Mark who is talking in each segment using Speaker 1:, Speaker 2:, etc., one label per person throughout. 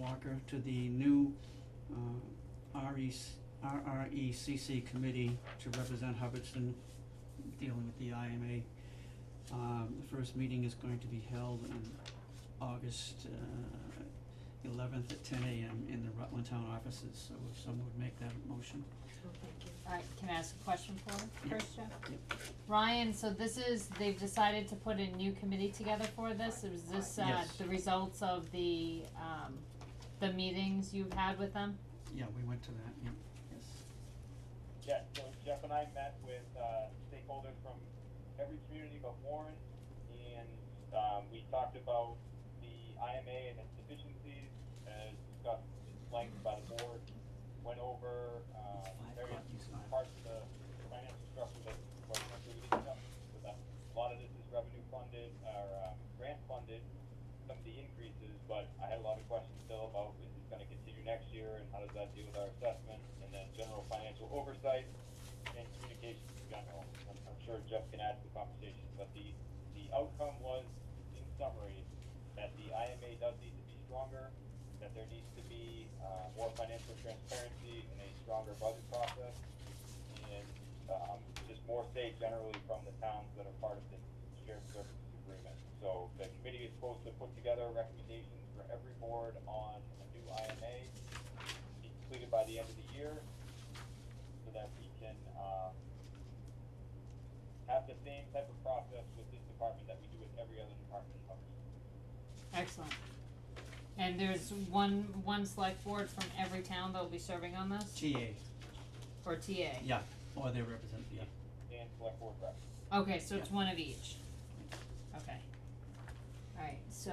Speaker 1: Becker to the new uh REC RRECC E committee to represent Hubbardston dealing with the IMA. Um the first meeting is going to be held on August uh eleventh at ten AM in the Rutland Town offices, so if someone would make that motion.
Speaker 2: Oh, thank you.
Speaker 3: Alright, can I ask a question for him,
Speaker 1: Yeah.
Speaker 3: first, Jeff? Ryan, so this is, they've decided to put a new committee together for this, is this, uh,
Speaker 1: Yes.
Speaker 3: the results of the, um, the meetings you've had with them?
Speaker 1: Yeah, we went to that, yeah, yes.
Speaker 4: Yes, so Jeff and I met with uh, stakeholders from every community but Warren, and um, we talked about the IMA and its deficiencies, uh, discussed at length by the board, went over uh,
Speaker 1: Five
Speaker 4: various
Speaker 1: o'clock, you saw.
Speaker 4: parts of the financial structure that were included in them. So that a lot of this is revenue funded or um, grant funded, some of the increases, but I had a lot of questions still about is this gonna continue next year and how does that deal with our assessment? And then general financial oversight and communications in general. I'm, I'm sure Jeff can add to the conversation, but the, the outcome was, in summary, that the IMA does need to be stronger, that there needs to be, uh, more financial transparency and a stronger budget process, and, um, just more say generally from the towns that are part of this shared services agreement. So the committee is supposed to put together recommendations for every board on a new IMA, be completed by the end of the year, so that we can, um, have the same type of process with this department that we do with every other department in Hubbardston.
Speaker 3: Excellent. And there's one, one select board from every town that'll be serving on this,
Speaker 1: TA,
Speaker 3: or TA?
Speaker 1: yeah, or they represent, yeah.
Speaker 4: and select board rep.
Speaker 3: Okay, so it's one of each. Okay. Alright, so,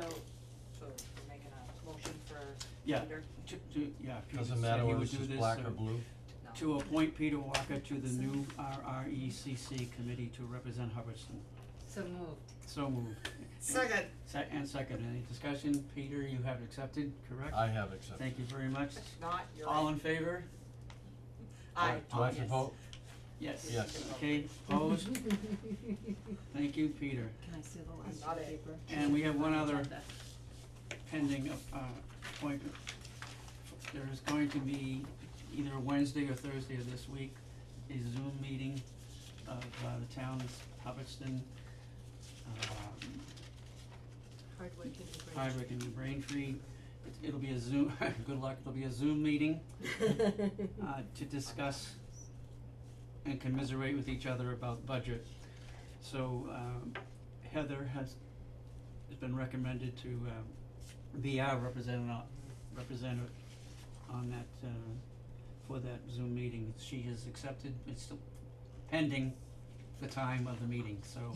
Speaker 2: So we're making a motion for
Speaker 1: Yeah.
Speaker 2: Peter?
Speaker 1: To, to, yeah, Peter
Speaker 5: Doesn't
Speaker 1: said
Speaker 5: matter
Speaker 1: he
Speaker 5: whether
Speaker 1: would
Speaker 5: it's
Speaker 1: do
Speaker 5: just
Speaker 1: this,
Speaker 5: black or
Speaker 1: so-
Speaker 5: blue.
Speaker 2: No.
Speaker 1: to appoint Peter Walker to the new RRECC committee to represent Hubbardston.
Speaker 3: so moved.
Speaker 1: So moved.
Speaker 2: Second.
Speaker 1: Se- and second, any discussion? Peter, you have accepted, correct?
Speaker 5: I have accepted.
Speaker 1: Thank you very much.
Speaker 2: If not, you're
Speaker 1: All
Speaker 2: right.
Speaker 1: in favor?
Speaker 2: Aye.
Speaker 5: Do I have to
Speaker 2: Yes.
Speaker 5: vote?
Speaker 1: Yes.
Speaker 5: Yes.
Speaker 1: Okay, opposed? Thank you, Peter.
Speaker 6: Can I see the last
Speaker 2: Oh, Not
Speaker 6: sheet of
Speaker 2: it.
Speaker 6: paper?
Speaker 1: And we have one other
Speaker 6: Agenda.
Speaker 1: pending uh appointment. There is going to be either Wednesday or Thursday of this week, a Zoom meeting of uh the town's Hubbardston um
Speaker 2: Hardwick and DeBranch.
Speaker 1: Hardwick and New Braintree. It- It'll be a Zoom, good luck, it'll be a Zoom meeting, uh, to discuss and commiserate with each other about budget. So, um, Heather has, has been recommended to, um, be our representative, on- representative on that, uh, for that Zoom meeting. She has accepted, it's still pending the time of the meeting, so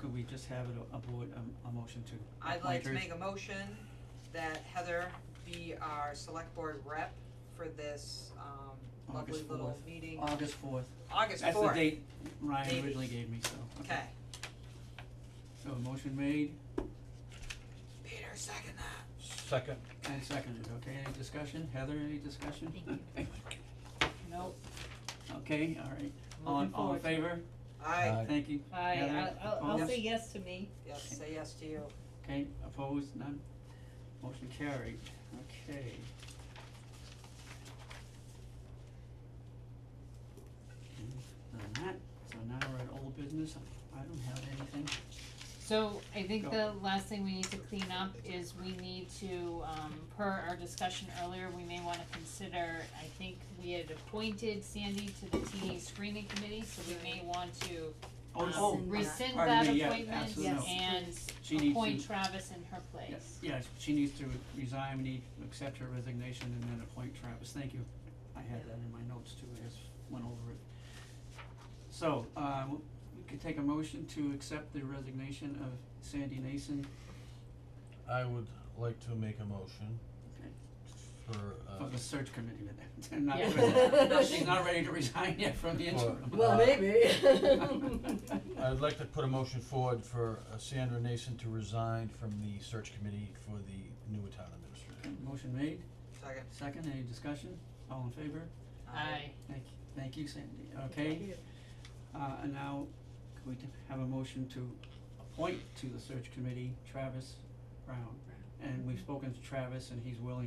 Speaker 1: could we just have it a, a board, um, a, a motion to
Speaker 2: I'd like
Speaker 1: appoint
Speaker 2: to
Speaker 1: her?
Speaker 2: make a motion that Heather be our select board rep for this, um, lovely
Speaker 1: August
Speaker 2: little
Speaker 1: 4th.
Speaker 2: meeting,
Speaker 1: August fourth.
Speaker 2: August fourth.
Speaker 1: That's the date Ryan
Speaker 2: Maybe.
Speaker 1: originally gave me, so.
Speaker 2: Okay,
Speaker 1: So a motion made
Speaker 2: Peter, second that.
Speaker 5: Second.
Speaker 1: and seconded, okay, any discussion? Heather, any discussion? Thank you.
Speaker 3: Nope,
Speaker 1: Okay, alright, all, in-
Speaker 3: looking
Speaker 1: all in
Speaker 3: forward to it.
Speaker 1: favor?
Speaker 2: Aye,
Speaker 5: Aye.
Speaker 1: Thank you,
Speaker 3: I,
Speaker 1: Heather,
Speaker 3: I'll, I'll, I'll
Speaker 1: opposed?
Speaker 3: say yes to me.
Speaker 2: yes, say yes to you.
Speaker 1: okay, opposed, none, motion carried, okay. And Done that, so now we're at old business, I don't have anything,
Speaker 3: So I think
Speaker 1: Go.
Speaker 3: the last thing we need to clean up is we need to, um, per our discussion earlier, we may wanna consider, I think we had appointed Sandy to the TA screening committee, so we may want to
Speaker 1: oh,
Speaker 3: um,
Speaker 1: oh,
Speaker 6: Rescind that.
Speaker 3: rescind
Speaker 1: Pardon
Speaker 3: that
Speaker 1: me, yeah,
Speaker 3: appointment
Speaker 1: absolutely.
Speaker 6: Yes,
Speaker 3: and
Speaker 1: She needs to-
Speaker 3: appoint Travis in her place.
Speaker 1: Yes, yeah, she needs to resign, we need, to accept her resignation and then appoint Travis, thank you. I had that in my notes too, I just went over it. So, um, we could take a motion to accept the resignation of Sandy Nason
Speaker 5: I would like to make a motion
Speaker 1: Okay.
Speaker 5: for,
Speaker 1: for
Speaker 5: uh,
Speaker 1: the search committee, but not,
Speaker 3: Yeah.
Speaker 1: resi- no, she's not ready to resign yet from the
Speaker 5: For-
Speaker 1: interim.
Speaker 5: Well,
Speaker 6: maybe.
Speaker 5: I'd like to put a motion forward for uh, Sandra Nason to resign from the search committee for the new town administrator.
Speaker 1: Motion made,
Speaker 2: Second.
Speaker 1: second, any discussion, all in favor?
Speaker 3: Aye.
Speaker 1: Thank, thank you Sandy, okay? Uh, and now, could we t- have a motion to appoint to the search committee Travis Brown? And we've spoken to Travis and he's willing